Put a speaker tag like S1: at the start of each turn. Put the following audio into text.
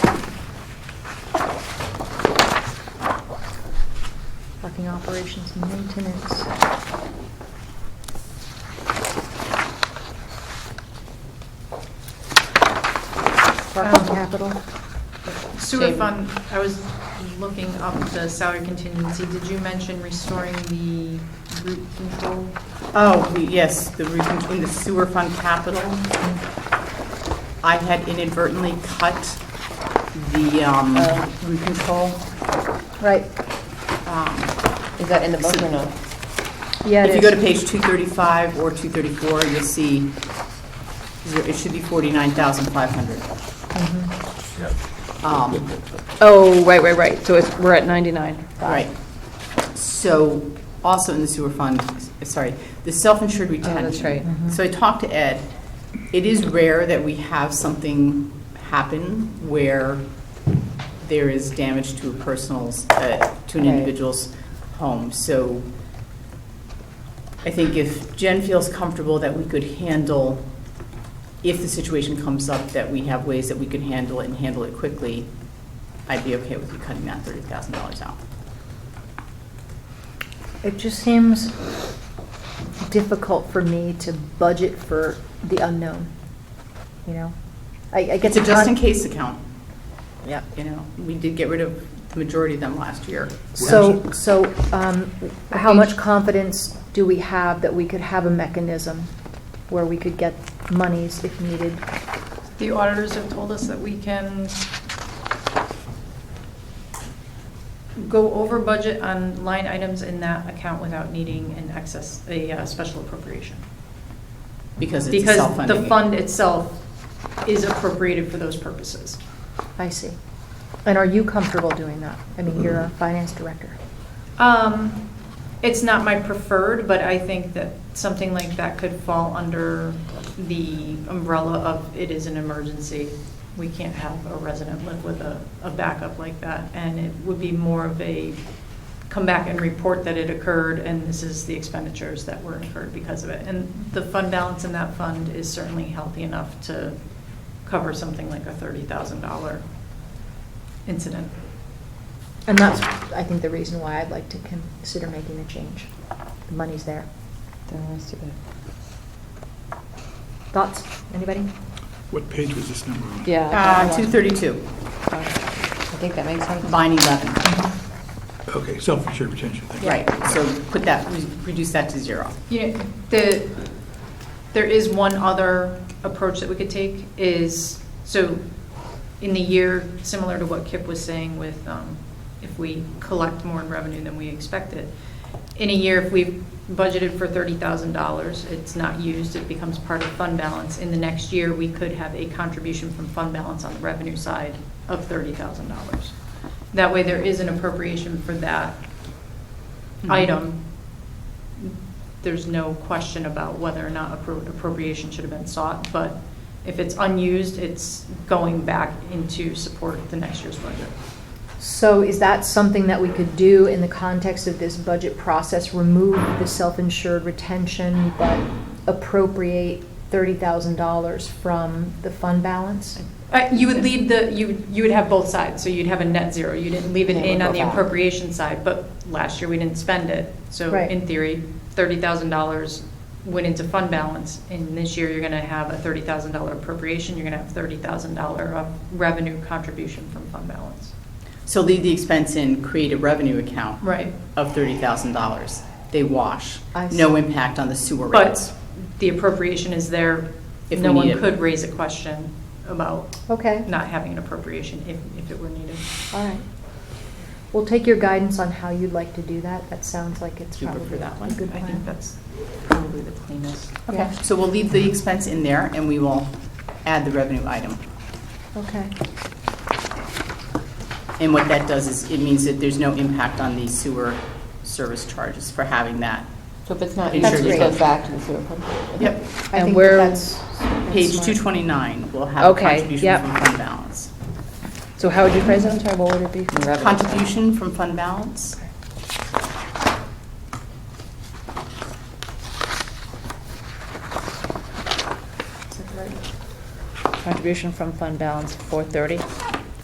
S1: landscaping operations and maintenance. Parking
S2: Um,
S1: capital.
S2: Sewer
S3: Same.
S2: fund, I was looking up the salary contingency. Did you mention restoring the root control?
S3: Oh, we- yes, the, recon- in the sewer fund capital, I had inadvertently cut the um, root control.
S1: Oh. Right,
S3: um,
S4: Is that in the book or no?
S1: yeah,
S3: If you
S1: it
S3: go to
S1: is.
S3: page 235 or 234, you'll see, there- it should be 49,500. Um,
S4: Oh, right, right, right. So it's, we're at 99.
S3: Right. So, also in the sewer fund, sorry, the self-insured retention.
S4: Oh, right. Mm-hmm.
S3: So I talked to Ed. It is rare that we have something happen where there is damage to a personal's, uh, to an
S4: Right.
S3: individual's home. So I think if Jen feels comfortable that we could handle, if the situation comes up, that we have ways that we could handle it and handle it quickly, I'd be okay with you cutting that $30,000 out.
S1: It just seems difficult for me to budget for the unknown, you know? I, I get
S3: It's
S1: the.
S3: a just in
S1: con-
S3: case account,
S1: Yeah.
S3: you know, we did get rid of the majority of them last year.
S1: So, so um, how much confidence do we have that we could have a mechanism where we could get monies if needed?
S2: The auditors have told us that we can go over budget on line items in that account without needing an excess, a uh, special appropriation.
S3: Because it's a
S2: Because
S3: self-funding.
S2: the fund itself is appropriated for those purposes.
S1: I see. And are you comfortable doing that? I mean, you're a
S4: Mm-hmm.
S1: finance director.
S2: Um, it's not my preferred, but I think that something like that could fall under the umbrella of it is an emergency. We can't have a resident live with a, a backup like that, and it would be more of a come back and report that it occurred, and this is the expenditures that were incurred because of it. And the fund balance in that fund is certainly healthy enough to cover something like a thirty thousand dollar incident.
S1: And that's, I think, the reason why I'd like to consider making the change. The money's there.
S4: The rest of it.
S1: Thoughts? Anybody?
S5: What page was this number on?
S4: Yeah.
S3: Uh,
S4: that one.
S3: 232,
S4: I think that makes sense.
S3: line 11.
S5: Okay, self-insured retention, thank you.
S3: Right, so put that, re- reduce that to zero.
S2: You know, the, there is one other approach that we could take is, so in the year, similar to what Kip was saying with, um, if we collect more in revenue than we expected, in a year, if we've budgeted for thirty thousand dollars, it's not used, it becomes part of fund balance. In the next year, we could have a contribution from fund balance on the revenue side of thirty thousand dollars. That way, there is an appropriation for that
S3: Mhm.
S2: item, there's no question about whether or not appro- appropriation should have been sought, but if it's unused, it's going back into support the next year's budget.
S1: So is that something that we could do in the context of this budget process? Remove the self-insured retention, but appropriate $30,000 from the fund balance?
S2: Uh, You would leave the, you, would- you would have both sides, so you'd have a net zero. You didn't leave it
S4: Yeah, it would
S2: in on
S4: go
S2: the
S4: back.
S2: appropriation side, but last year we didn't spend it. So
S1: Right.
S2: in theory, $30,000 went into fund balance, and this year you're going to have a $30,000 appropriation, you're going to have $30,000 of revenue contribution from fund balance.
S3: So leave the expense in, create a revenue account
S2: Right.
S3: of $30,000. They wash.
S1: I
S3: No
S1: see.
S3: impact on the sewer rates.
S2: But the appropriation is there.
S3: If
S2: No
S3: we need
S2: one
S3: it.
S2: could raise a question about
S1: Okay.
S2: not having an appropriation if, if it were needed.
S1: All right. We'll take your guidance on how you'd like to do that. That sounds like it's
S3: Do you prefer
S1: probably
S3: that
S1: a
S3: one?
S1: good
S2: I think
S1: plan.
S2: that's probably the cleanest.
S1: Okay,
S3: So we'll leave the expense in there, and we will add the revenue item.
S1: okay.
S3: And what that does is, it means that there's no impact on the sewer service charges for having that.
S4: So if it's not
S3: That's
S4: used, it just
S3: great.
S4: goes back to the sewer fund.
S3: Yep.
S1: I
S4: And
S1: think that
S4: we're-
S1: that's-
S3: Page
S1: that's smart.
S3: 229 will have a
S4: Okay,
S3: contribution
S4: yep.
S3: from fund balance.
S4: So how would you phrase it? I'm sorry, what would it be?
S3: Contribution from fund balance?
S4: Contribution from fund balance, 430.